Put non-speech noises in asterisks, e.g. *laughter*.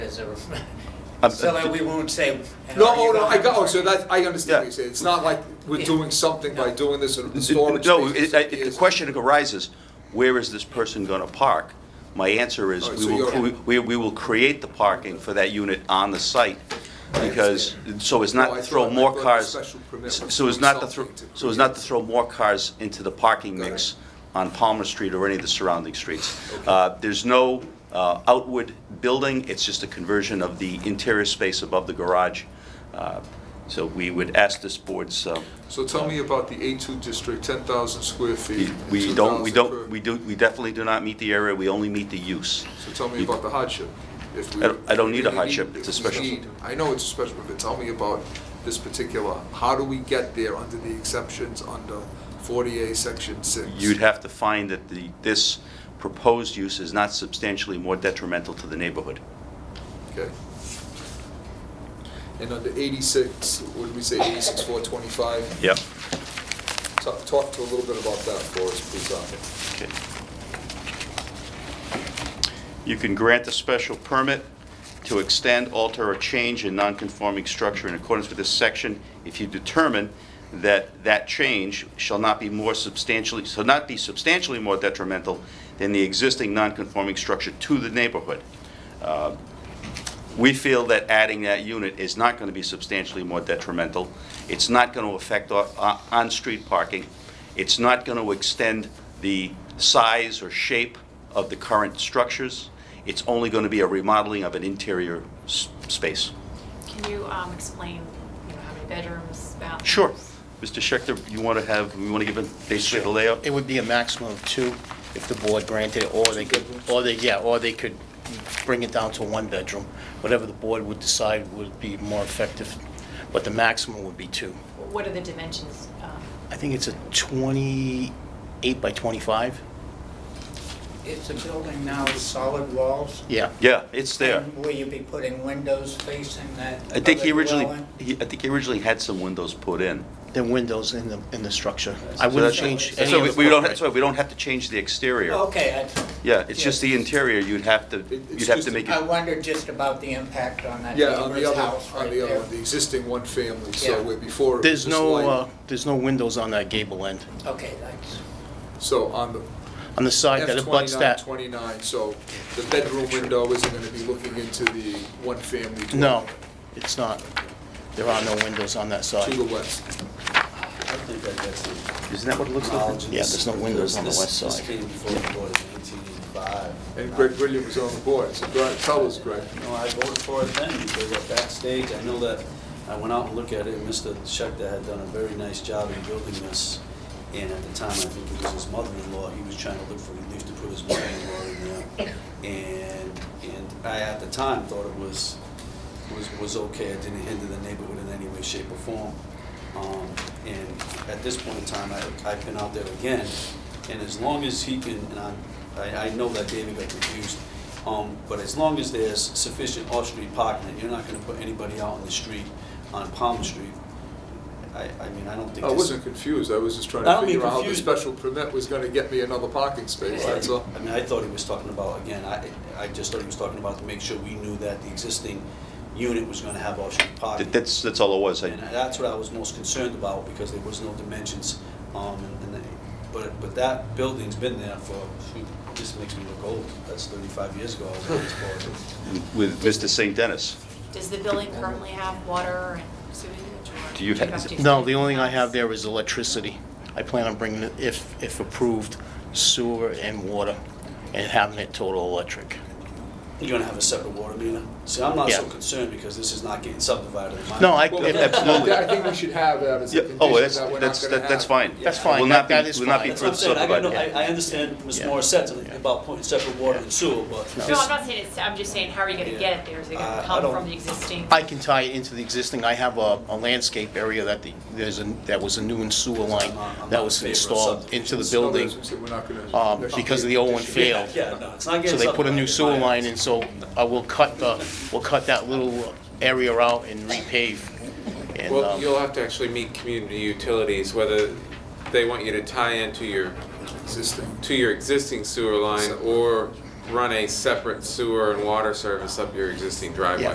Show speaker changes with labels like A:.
A: as a,
B: I'm-
A: so that we won't say. and
C: No,
A: are you
C: oh, no, I
A: gonna-
C: got, oh, so that, I understand what
B: Yeah.
C: you're saying. It's not like we're
A: Yeah.
C: doing something by doing this or the storage
B: No,
C: spaces
B: it- it- the
C: is-
B: question arises, where is this person going to park? My answer is,
C: All right,
B: we
C: so
B: will,
C: you're-
B: cre- we we will create the parking for that unit on the site,
C: I
B: because, so as
C: No,
B: not
C: I
B: to throw
C: thought- I
B: more
C: thought the
B: cars,
C: special permit
B: s-
C: was
B: so as
C: doing
B: not to throw,
C: something to
B: so as not to throw more cars into the parking mix on Palmer Street or any of the surrounding streets. Uh, There's no uh, outward building, it's just a conversion of the interior space above the garage. Uh, So we would ask this board's uh,
C: So tell me about the A2 district, 10,000 square feet.
B: We- We
C: 2,000
B: don't, we
C: per-
B: don't, we do, we definitely do not meet the area, we only meet the use.
C: So tell me about the hardship. If we-
B: I don't- I don't need a
C: if we
B: hardship.
C: if
B: It's a
C: we
B: special-
C: need- I know it's a special, but tell me about this particular, how do we get there under the exceptions under 40A, section 6?
B: You'd have to find that the, this proposed use is not substantially more detrimental to the neighborhood.
C: Okay. And under 86, what did we say, 86, 425?
B: Yep.
C: Talk, talk to a little bit about that for us, please, Arthur.
B: Okay. You can grant a special permit to extend, alter, or change a nonconforming structure in accordance with this section if you determine that that change shall not be more substantially, shall not be substantially more detrimental than the existing nonconforming structure to the neighborhood. Uh, We feel that adding that unit is not going to be substantially more detrimental. It's not going to affect o- o- on-street parking. It's not going to extend the size or shape of the current structures. It's only going to be a remodeling of an interior s- space.
D: Can you um, explain, you know, how many bedrooms, bathrooms?
B: Sure. Mr. Schechter, you want to have, you want to give a basically the layout?
E: It would be a maximum of two if the board granted it, or they could, or they, yeah, or they could bring it down to one bedroom. Whatever the board would decide would be more effective, but the maximum would be two.
D: What are the dimensions? um,
E: I think it's a 28 by 25?
F: Is the building now with solid walls?
E: Yeah.
B: Yeah, it's there.
F: And Will you be putting windows facing that
B: I think he
F: other
B: originally,
F: dwelling?
B: he- I think he originally had some windows put in.
E: The windows in the, in the structure.
B: So
E: I
B: that's-
E: wouldn't change
B: so
E: any of the... Oh,
B: we- we don't-
E: footprint.
B: That's why we don't have to change the exterior.
F: Okay,
B: Yeah, it's just the
F: Yeah.
B: interior, you'd have to,
C: it's
B: you'd have
C: just
B: to make
F: I, I
B: it,
F: wondered just about the impact on that
C: Yeah, on the
F: neighbor's house
C: other, on
F: right
C: the other,
F: there.
C: one, the existing one family, so
F: Yeah.
C: where before. it was
E: There's
C: just
E: no,
C: light.
E: uh, there's no windows on that gable end,
F: Okay, that's,
C: So on the
E: on the side that
C: F
E: abuts
C: twenty-nine,
E: that.
C: twenty-nine, so the bedroom window isn't gonna be looking into the one family.
E: No, it's not. There are no windows on that
C: To the
E: side.
C: west.
B: isn't that what it looks like?
E: Yeah, there's no windows on the west
G: This-
E: side.
G: This came before the board in 1885.
C: And Greg Brilliant was on the board, so Greg, tell us, Greg.
G: No, I voted for it then, because at that stage, I know that, I went out and looked at it, and Mr. Schechter had done a very nice job in building this, and at the time, I think it was his mother-in-law, he was trying to look for relief to put his mother-in-law in there. And, and I, at the time, thought it was, was, was okay, it didn't hinder the neighborhood in any way, shape, or form. Um, And at this point in time, I, I've been out there again, and as long as he can, and I'm- I, I know that David got confused, um, but as long as there's sufficient off-street parking, and you're not gonna put anybody out on the street, on Palmer Street, I, I mean, I don't think
C: I
G: this.
C: Oh, wasn't confused, I was just trying to
G: I don't mean
C: figure out how the
G: confused.
C: special permit was gonna get me another parking space, that's all.
G: I mean, I thought he was talking about, again, I, I just thought he was talking about to make sure we knew that the existing unit was gonna have off-street parking.
B: That- That's, that's all it was.
G: And
B: I-
G: that's what I was most concerned about, because there was no dimensions, um, and, and, they- but, but that building's been there for, shoot, this makes me look old, that's thirty-five years ago, I was
E: *laughs*
G: on this board.
B: With Mr. St. Dennis.
D: Does the building currently have water and sewage? or
B: Do you have-
D: have to-
E: No, the only thing I have there is electricity. I plan on bringing, it, if, if approved, sewer and water, and having it total electric.
G: You're gonna have a separate water meter? See, I'm not so
E: Yeah.
G: concerned, because this is not getting subdivided in my.
E: No, I-
C: Well,
B: Yeah, absolutely.
C: I think we should have that as a
B: Yeah,
C: condition that
B: oh,
C: we're
B: that's,
C: not gonna have.
B: that's, that- that's fine.
E: That's
B: Will
E: fine.
B: not
E: That-
B: be-
E: that is
B: Will not
E: fine.
B: be
G: That's what I'm
B: further
G: saying, I got no,
B: subdivided.
G: I, I understand Ms.
E: Yeah.
G: Morris said something
E: Yeah.
G: about putting separate water and sewer, but this.
D: No, I'm not saying it's, I'm just saying, how are you gonna get it there? Is it
G: Uh,
D: gonna
G: I
D: come
G: don't-
D: from the existing?
E: I can tie it into the existing, I have a, a landscape area that the, there's a, that was a new sewer line
G: I'm not- I'm
E: that
G: not
E: was
G: in favor of
E: installed
G: subdivisions.
E: into the
C: No,
E: building,
C: that's what I'm saying, we're not gonna-
E: um,
C: that's
E: because
C: not
E: the old one
C: condition.
E: failed.
G: Yeah, no, it's
E: So
G: not getting subdivided.
E: they put a new
G: in
E: sewer
G: my
E: line
G: eyes.
E: in, so I will cut the, we'll cut that little area out and repave. And,
H: Well,
E: um,
H: you'll have to actually meet community utilities, whether they want you to tie into your,
C: Existing.
H: to your existing sewer line or run a separate sewer and water service up your existing driveway.